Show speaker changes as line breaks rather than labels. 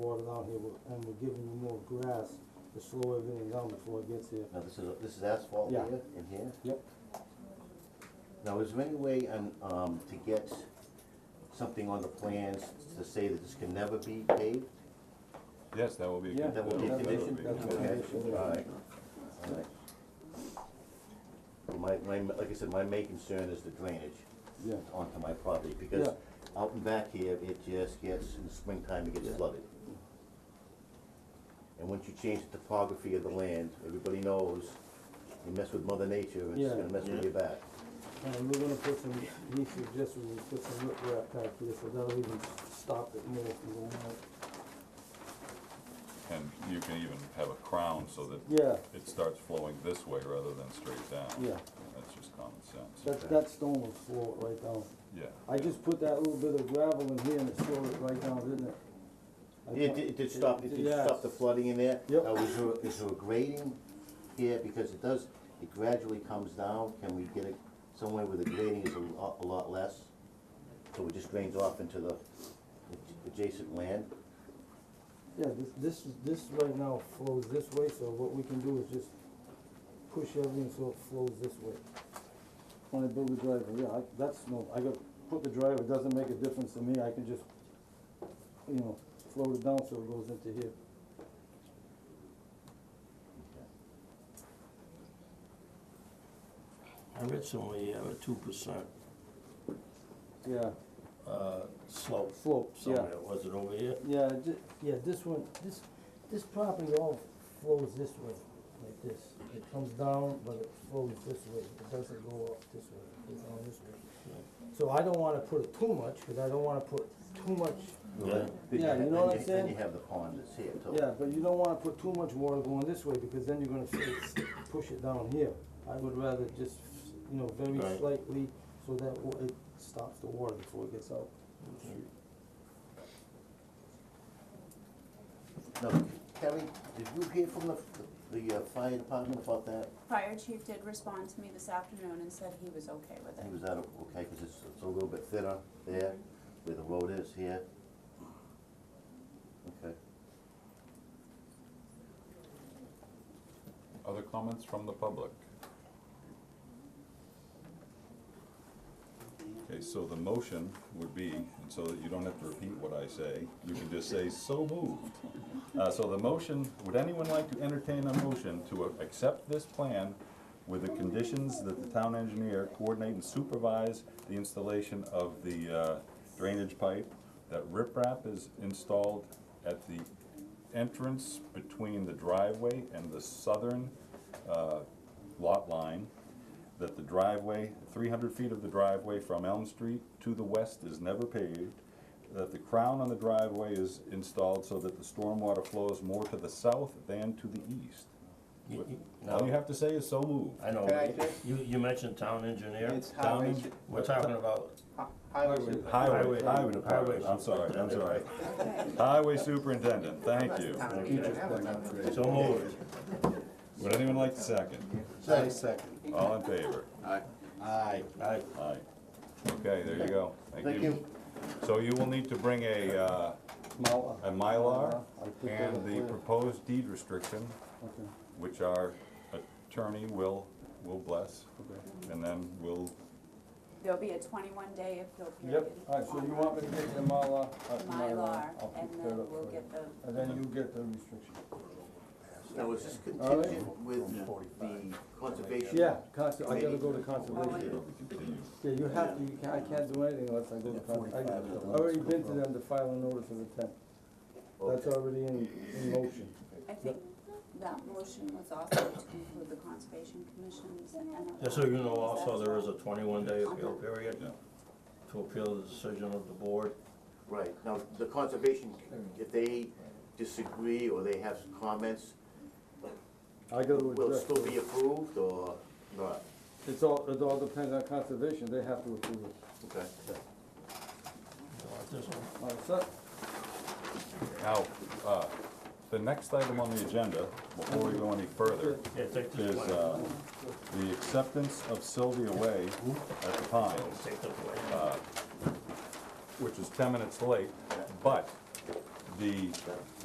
water down here, we're- and we're giving you more grass to slow everything down before it gets here.
Now, this is, this is asphalt here
Yeah.
and here?
Yep.
Now, is there any way, um, um, to get something on the plans to say that this can never be paved?
Yes, that will be a
Yeah,
good.
That will be a
That would be-
condition?
that would be a
Okay,
condition, yeah.
all right, all right. My, my, like I said, my main concern is the drainage
Yeah.
onto my property, because
Yeah.
out and back here, it just gets, in the springtime, it gets flooded. And once you change the topography of the land, everybody knows, you mess with mother nature, it's
Yeah.
gonna mess with your back.
And we're gonna put some, he suggested we put some rip wrap back here, so that'll even stop it more from going out.
And you can even have a crown so that
Yeah,
it starts flowing this way rather than straight down.
Yeah.
That's just common sense.
that, that stone will slow it right down.
Yeah.
I just put that little bit of gravel in here and it slowed it right down, didn't it? I
It,
put-
did- it did stop, it did
yeah.
stop the flooding in there.
Yep.
Now, is there, is there a grading here, because it does, it gradually comes down, can we get it somewhere where the grading is a lot, a lot less? So it just drains off into the adj- adjacent land?
Yeah, this, this, is- this right now flows this way, so what we can do is just push everything so it flows this way. When I build the driveway, yeah, I, that's no, I got, put the driveway, it doesn't make a difference to me, I can just, you know, float it down so it goes into here.
I read somewhere you have a two percent uh,
Yeah,
slope
slopes, yeah.
somewhere, was it over here?
Yeah, ju- yeah, this one, this, this property all flows this way, like this. It comes down, but it flows this way, it doesn't go up this way, it goes down this way. So I don't wanna put it too much, cause I don't wanna put too much,
Well, then- then
Yeah,
ha-
you know what I'm
then Then
saying?
you have the pond that's here, too.
yeah, but you don't wanna put too much water going this way, because then you're gonna s- push it down here. I would rather just, you know, very
Right.
slightly, so that wa- it stops the water before it gets out.
Now, Kelly, did you hear from the, the uh, fire department about that?
Fire chief did respond to me this afternoon and said he was okay with
I
it.
think it was out of, okay, because it's, it's a little bit thinner there, where the road is here. Okay.
Other comments from the public? Okay, so the motion would be, and so that you don't have to repeat what I say, you can just say, so moved. Uh, so the motion, would anyone like to entertain a motion to a- accept this plan with the conditions that the town engineer coordinate and supervise the installation of the uh, drainage pipe, that riprap is installed at the entrance between the driveway and the southern uh, lot line, that the driveway, three hundred feet of the driveway from Elm Street to the west is never paved, that the crown on the driveway is installed so that the stormwater flows more to the south than to the east.
You- you-
All you
Now,
have to say is so moved.
I know,
Can I just,
you, you mentioned town engineer,
it's highway,
Down.
su-
we're talking about,
highway su-
Highway,
Highway-
highway department,
highway
I'm sorry, I'm sorry. Highway superintendent, thank you.
so moved.
Would anyone like to second?
second.
All in favor?
Aye.
I,
Aye. Okay, there you go.
Thank you.
So you will need to bring a, uh,
Mylar.
a Mylar
I put that
and
up
the
there.
proposed deed restriction,
Okay,
which our attorney will, will bless,
okay.
and then we'll,
There'll be a twenty-one day appeal period.
Yep, alright, so you want me to take the Mylar?
on
uh,
Mylar,
I'll
and
pick that
then
up
we'll
for you.
get the,
And then you get the restriction.
Now, is this
All right.
contingent with the conservation?
Yeah, conser- I gotta
Maybe.
go to
Oh, I-
conservation.
we'll continue.
Yeah, you have to, you can't, I can't do anything unless I go to con, I, I've already been to them to file a notice of intent. That's already in, in motion.
I think that motion was also to include the conservation commissions and.
just so you know, also, there is a twenty-one day appeal period
Yeah.
to appeal the decision of the board.
Right, now, the conservation, if they disagree or they have comments,
I gotta
will it
address,
still be approved or not?
it's all, it all depends on conservation, they have to approve it.
Okay.
You know, like this one.
All right, so,
Now, uh, the next item on the agenda, before we go any further,
Yeah, take this
is,
one.
uh, the acceptance of Sylvia Way at the Pines.
Take this one.
which is ten minutes late, but the